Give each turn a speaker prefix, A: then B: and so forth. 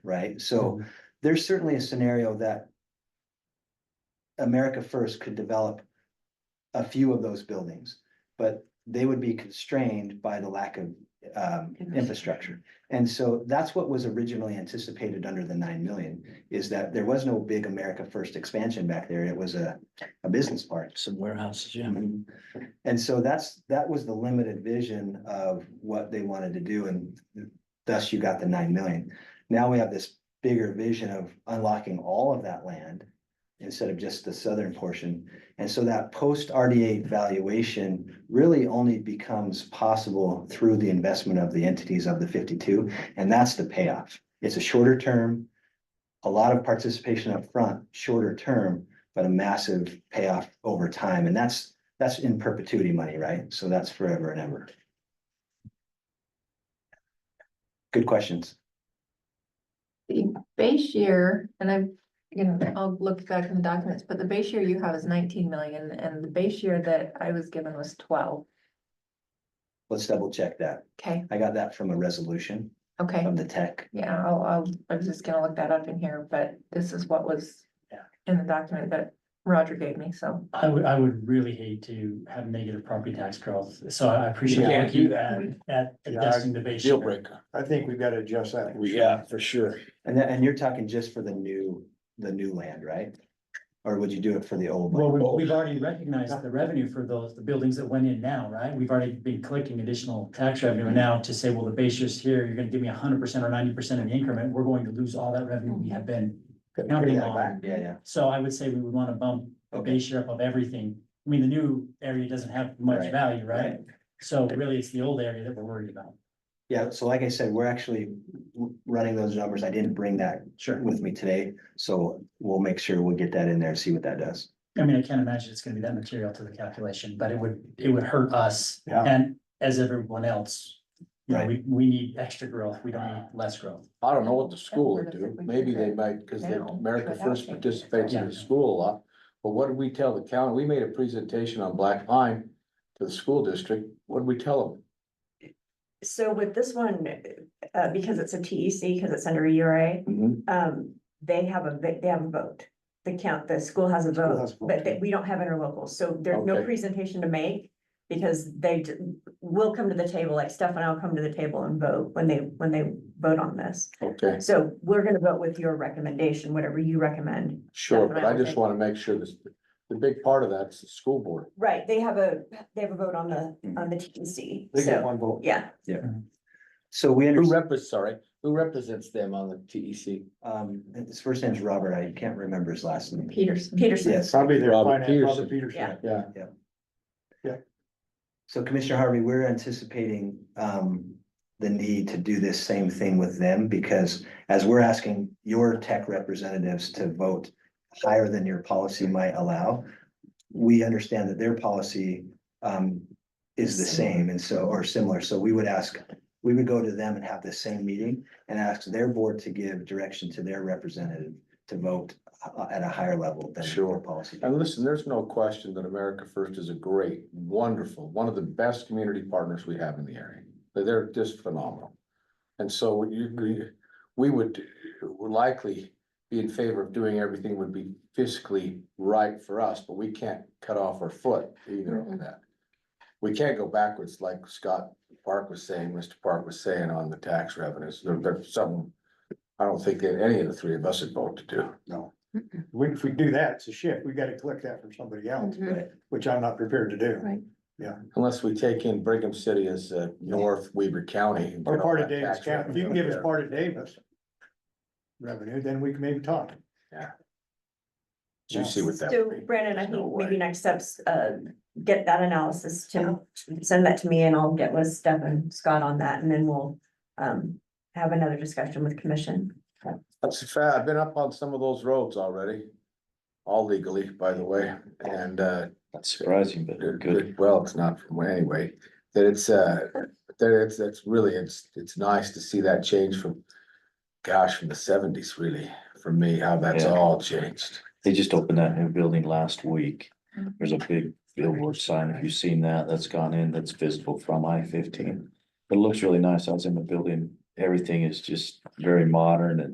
A: right?
B: Mm-hmm.
A: So there's certainly a scenario that America First could develop a few of those buildings, but they would be constrained by the lack of um infrastructure. And so that's what was originally anticipated under the nine million, is that there was no big America First expansion back there. It was a a business park.
C: Some warehouses, yeah.
A: And so that's, that was the limited vision of what they wanted to do and thus you got the nine million. Now we have this bigger vision of unlocking all of that land instead of just the southern portion. And so that post RDA valuation really only becomes possible through the investment of the entities of the fifty-two, and that's the payoff. It's a shorter term, a lot of participation up front, shorter term, but a massive payoff over time, and that's that's in perpetuity money, right? So that's forever and ever. Good questions.
D: The base year, and I'm, you know, I'll look back in the documents, but the base year you have is nineteen million, and the base year that I was given was twelve.
A: Let's double check that.
D: Okay,
A: I got that from a resolution
D: okay,
A: of the tech.
D: yeah, I'll, I'll, I was just gonna look that up in here, but this is what was
C: Yeah.
D: in the document that Roger gave me, so.
C: I would, I would really hate to have negative property tax growth, so I
B: You
C: appreciate.
B: can't
C: looking
B: do that.
C: At addressing the base.
B: Deal
C: year.
B: breaker.
E: I think we've got to adjust that.
B: Yeah, for sure.
A: And that, and you're talking just for the new, the new land, right? Or would you do it for the old?
C: Well,
A: land?
C: we've, we've already recognized the revenue for those, the buildings that went in now, right? We've already been collecting additional tax revenue
B: Mm-hmm.
C: And now to say, well, the base is here, you're gonna give me hundred percent or ninety percent of the increment, we're going to lose all that revenue we have been counting on.
A: Yeah, yeah.
C: So I would say we would wanna bump the base share up of everything. I mean, the new area doesn't have much
A: Right.
C: value, right? So really, it's the old area that we're worried about.
A: Yeah, so like I said, we're actually w- running those numbers. I didn't bring that
C: Sure.
A: with me today, so we'll make sure we'll get that in there and see what that does.
C: I mean, I can't imagine it's gonna be that material to the calculation, but it would, it would hurt us
E: Yeah.
C: and as everyone else. You know,
A: Right.
C: we, we need extra growth, we don't need less growth.
B: I don't know what the school would do. Maybe they might, because the America First participates in the school a lot. But what did we tell the county? We made a presentation on Black Pine to the school district. What did we tell them?
F: So with this one, uh, because it's a TEC, because it's under URA,
E: Mm-hmm.
F: um, they have a, they have a vote. The count, the school has a
E: School has
F: vote,
E: a vote.
F: but they- we don't have interlocals, so there's no
B: Okay.
F: presentation to make. Because they d- will come to the table, like Steph and I'll come to the table and vote when they, when they vote on this.
B: Okay,
F: So we're gonna vote with your recommendation, whatever you recommend.
B: sure, but I just want to make sure this, the big part of that's the school board.
F: Right, they have a, they have a vote on the, on the TEC,
E: They get
F: so,
E: one vote.
F: yeah.
A: So we
B: Who
A: understand.
B: represents, sorry, who represents them on the E TEC?
A: Um, his first name's Robert, I can't remember his last name.
D: Peterson.
F: Peterson.
A: Yes,
E: Probably their
B: Robert
E: finance, Robert
B: Peterson.
E: Peterson.
B: Yeah,
A: so Commissioner Harvey, we're anticipating um the need to do this same thing with them because as we're asking your tech representatives to vote higher than your policy might allow, we understand that their policy um is the same and so, or similar, so we would ask, we would go to them and have the same meeting and ask their board to give direction to their representative to vote uh, at a higher level than
B: Sure.
A: your policy.
B: and listen, there's no question that America First is a great, wonderful, one of the best community partners we have in the area. They're- They're just phenomenal. And so would you, agree- we would would likely be in favor of doing everything would be fiscally right for us, but we can't cut off our foot either on that. We can't go backwards like Scott Park was saying, Mr. Park was saying on the tax revenues. There- There's some, I don't think that any of the three of us would vote to do.
E: No. We- If we do that, it's a shift. We got to collect that from somebody
D: Mm.
E: else,
A: Mm-hmm.
E: which I'm not prepared to do.
B: Unless we take in Brigham City as uh, North Weber County. and
E: Or
B: get all
E: part of
B: that
E: Davis
B: tax
E: County. If you can
B: revenue
E: give us
B: there.
E: part of Davis revenue, then we can maybe talk.
B: You see what that
F: So
B: would be.
F: Brandon, I
B: There's no
F: think maybe
B: way.
F: next steps, uh, get that analysis to, send that to me and I'll get with Steph and Scott on that and then we'll. Um, have another discussion with commission.
B: That's a fact. I've been up on some of those roads already. All legally, by the way, and uh,
G: That's surprising, but
B: it-
G: good.
B: it- well, it's not from anyway. That it's uh, that it's, it's really, it's, it's nice to see that change from. Gosh, from the seventies really, for me, how that's
G: Yeah.
B: all changed.
G: They just opened that new building last week.
D: Mhm.
G: There's a big billboard sign. If you've seen that, that's gone in, that's visible from I fifteen. It looks really nice. I was in the building. Everything is just very modern and